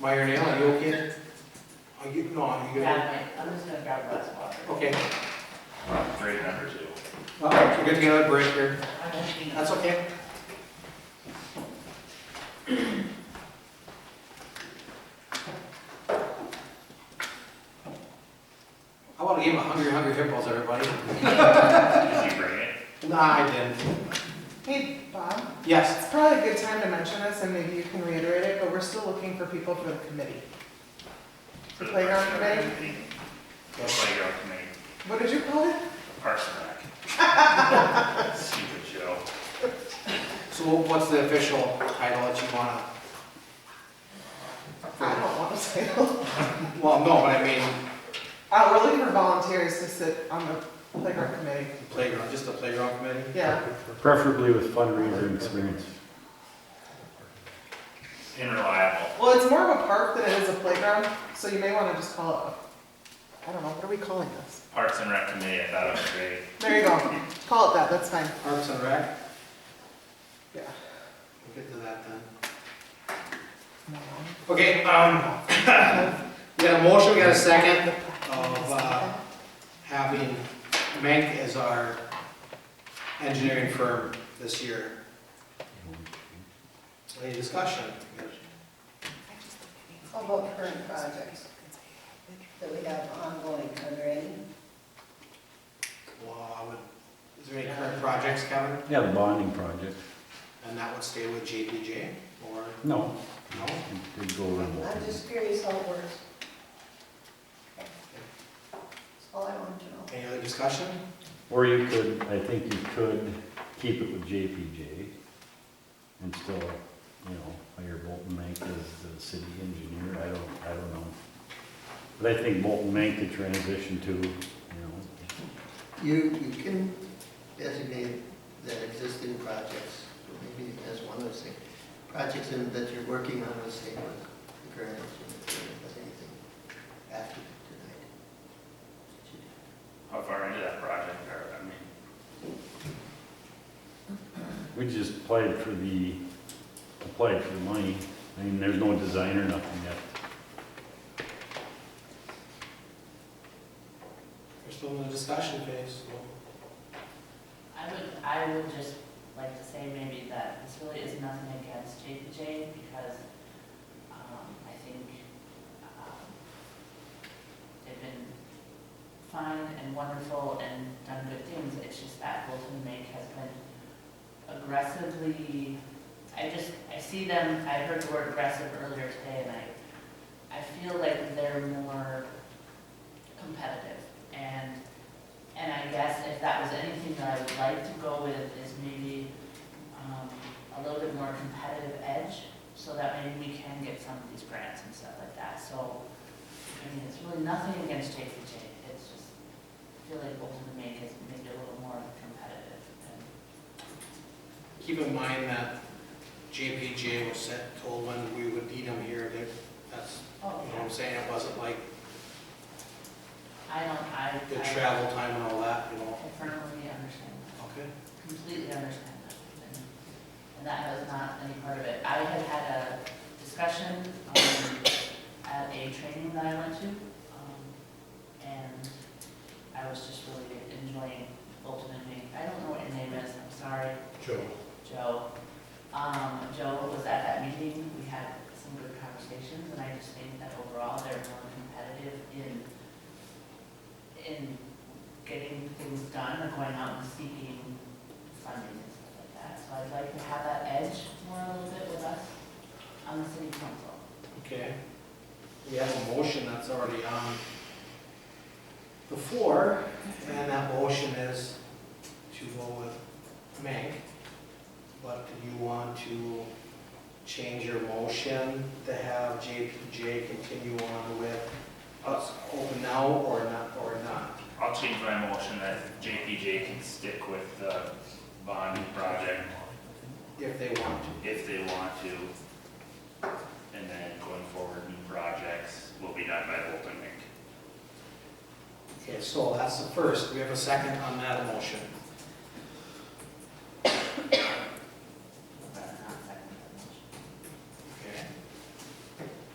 Meyer Nail, are you okay? Are Oh, you, no, are you gonna, Grab my, I'm just gonna grab a glass of water. okay, Great numbers, you. we're gonna get another break here. I won't be- That's okay. I want to give him a hungry, hungry hippos, everybody. Did you bring it? Nah, I didn't. Hey, Bob, Yes, it's probably a good time to mention this, and maybe you can reiterate it, but we're still looking for people for the committee. For the Playground Parks and Rec meeting. yes. Playground committee, What did you call it? Parks and Rec. Stupid Joe. So what- what's the official title that you want I to? don't want to say. Uh, Well, no, but I mean, we're looking Uh, for volunteers to sit on the playground committee. the playground, just the playground committee? Yeah, Preferably with fundraising experience. Unreliable. well, it's more of a park than it is a playground, so you may want to just call it, a- I don't know, what are we calling this? Parks and Rec committee, I thought it was great. There you go, call it that, that's fine, Parks and Rec? yeah. We'll get to that then. Okay, um, we got a motion, we got a second of, uh, having Menk as our engineering firm this year. Any discussion? How about current projects that we have ongoing, are there any? Well, I would, is there any current projects, Kevin? Yeah, the bonding project. And that would stay with JPJ or No, no? it did go around. I'm just curious how it works. That's all I wanted to know. Any other discussion? Or you could, I think you could keep it with JPJ and still, you know, hire Bolton Mank as the city engineer. I don't, I don't know. But I think Bolton Mank could transition to, you know, You, you can designate that existing projects, maybe as one of those things, projects in- that you're working on, let's say, with the current, if there's anything after tonight. How far into that project are, I mean, we just applied for the, applied for the money. I mean, there's no design or nothing yet. We're still in the discussion phase. I would, I would just like to say maybe that this really is nothing against JPJ because, um, I think, um, they've been fine and wonderful and done good things, it's just that Bolton Make has been aggressively, I just, I see them, I heard the word aggressive earlier today and I, I feel like they're more competitive and and I guess if that was anything that I would like to go with is maybe um, a little bit more competitive edge, so that maybe we can get some of these grants and stuff like that. So, I mean, it's really nothing against JPJ, it's just, I feel like Bolton and Make is maybe a little more competitive. and- Keep in mind that JPJ was set, told when we would need them here, that, that's, you know what I'm saying? It wasn't like I don't, I, the I travel time and all that, you know? I firmly understand that. Okay. completely understand that. and- And that was not any part of it. I had had a discussion um, at a training that I went to, um, and I was just really enjoying Bolton and Mink. I don't know what your name is, I'm sorry, Joe. Joe. Um, Joe was at that meeting, we had some good conversations, and I just think that overall, they're more competitive in, in getting things done or going out and seeking funding and stuff like that. So I'd like to have that edge more a little bit with us on the city council. Okay. We have a motion that's already on the floor, and that motion is to go with Mank. But do you want to change your motion to have JPJ continue on with us open now or not, or not? I'll change my motion that JPJ can stick with the bonding project If they want to. if they want to. And then going forward, new projects will be done by Open Mic. Okay, so that's the first. We have a second on that motion.